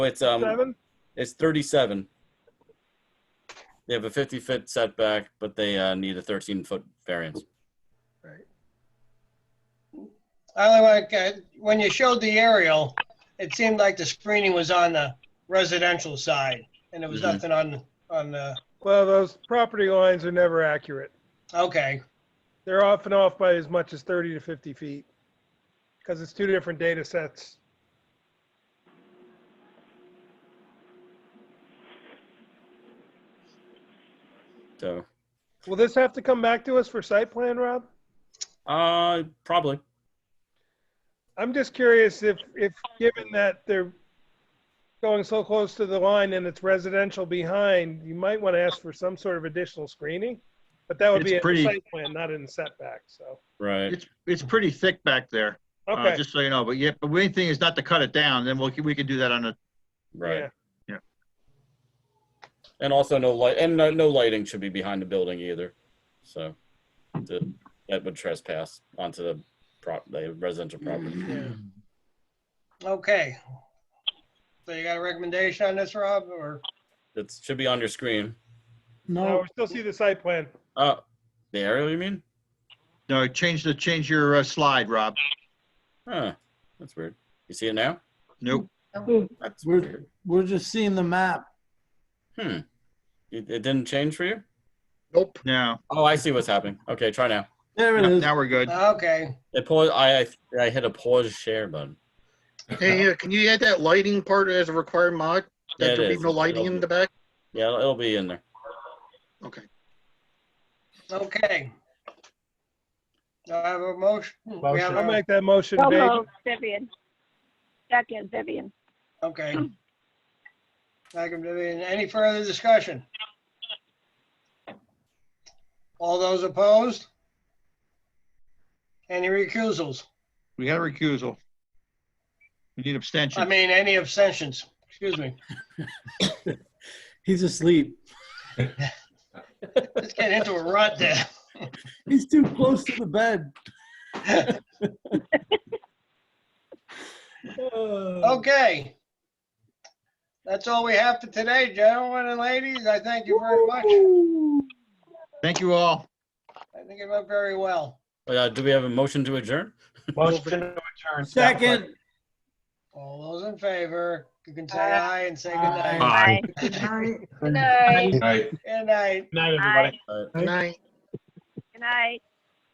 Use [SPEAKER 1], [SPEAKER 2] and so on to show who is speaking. [SPEAKER 1] It's, um,
[SPEAKER 2] Seven?
[SPEAKER 1] it's 37. They have a 50-foot setback, but they uh, need a 13-foot variance.
[SPEAKER 3] I like, uh, when you showed the aerial, it seemed like the screening was on the residential side, and there was
[SPEAKER 1] Mhm.
[SPEAKER 3] nothing on, on the,
[SPEAKER 2] Well, those property lines are never accurate.
[SPEAKER 3] okay,
[SPEAKER 2] They're often off by as much as 30 to 50 feet because it's two different data sets.
[SPEAKER 1] So,
[SPEAKER 2] Will this have to come back to us for site plan, Rob?
[SPEAKER 1] uh, probably.
[SPEAKER 2] I'm just curious if, if, given that they're going so close to the line and it's residential behind, you might want to ask for some sort of additional screening. But that would be
[SPEAKER 4] It's
[SPEAKER 2] a
[SPEAKER 4] pretty-
[SPEAKER 2] site plan, not in setback, so,
[SPEAKER 1] Right.
[SPEAKER 4] It's, it's pretty thick back there, uh,
[SPEAKER 2] okay.
[SPEAKER 4] just so you know, but yeah, but main thing is not to cut it down, then we'll, we can do that on a,
[SPEAKER 1] Right.
[SPEAKER 2] yeah.
[SPEAKER 1] And also no light and no, no lighting should be behind the building either. So the, that would trespass onto the prop, the residential property.
[SPEAKER 3] okay. So you got a recommendation on this, Rob, or,
[SPEAKER 1] That should be on your screen.
[SPEAKER 2] No,
[SPEAKER 5] No,
[SPEAKER 2] we still see the site plan.
[SPEAKER 1] Oh, the aerial you mean?
[SPEAKER 4] no, change the, change your uh, slide, Rob.
[SPEAKER 1] Huh, that's weird. You see it now?
[SPEAKER 4] Nope.
[SPEAKER 1] That's
[SPEAKER 5] we're, we're just seeing the map.
[SPEAKER 1] Hmm. It, it didn't change for you?
[SPEAKER 4] Nope. No,
[SPEAKER 1] Oh, I see what's happening. Okay, try now.
[SPEAKER 5] There it is.
[SPEAKER 4] now we're good.
[SPEAKER 3] okay,
[SPEAKER 1] It pause. I, I I hit a pause share button.
[SPEAKER 6] Hey, uh, can you add that lighting part as a required mod?
[SPEAKER 1] Yeah,
[SPEAKER 6] That
[SPEAKER 1] it
[SPEAKER 6] there be
[SPEAKER 1] is.
[SPEAKER 6] no lighting
[SPEAKER 1] It'll
[SPEAKER 6] in
[SPEAKER 1] be-
[SPEAKER 6] the back?
[SPEAKER 1] Yeah, it'll- it'll be in there.
[SPEAKER 6] Okay.
[SPEAKER 3] okay. Do I have a motion? We have
[SPEAKER 2] I'll
[SPEAKER 3] a,
[SPEAKER 2] make that motion,
[SPEAKER 7] So
[SPEAKER 2] Dave.
[SPEAKER 7] moved, Vivian. Second, Vivian.
[SPEAKER 3] okay. Second, Vivian. any further discussion? All those opposed? Any recusals?
[SPEAKER 4] We got a recusal. We need
[SPEAKER 3] I
[SPEAKER 4] abstention.
[SPEAKER 3] mean, any abstentions, excuse me.
[SPEAKER 5] He's asleep.
[SPEAKER 3] It's getting into a rut there.
[SPEAKER 5] He's too close to the bed.
[SPEAKER 3] Oh,
[SPEAKER 5] Uh,
[SPEAKER 3] Okay. That's all we have for today, gentlemen and ladies. I thank you very much. I
[SPEAKER 4] Thank you all.
[SPEAKER 3] think it went very well.
[SPEAKER 1] Uh, do we have a motion to adjourn?
[SPEAKER 5] Second.
[SPEAKER 3] All those in favor, you can say aye and say good night.
[SPEAKER 4] Aye.
[SPEAKER 7] Bye. Good night.
[SPEAKER 3] Good night.
[SPEAKER 7] Bye.
[SPEAKER 6] Good night.
[SPEAKER 7] Good night.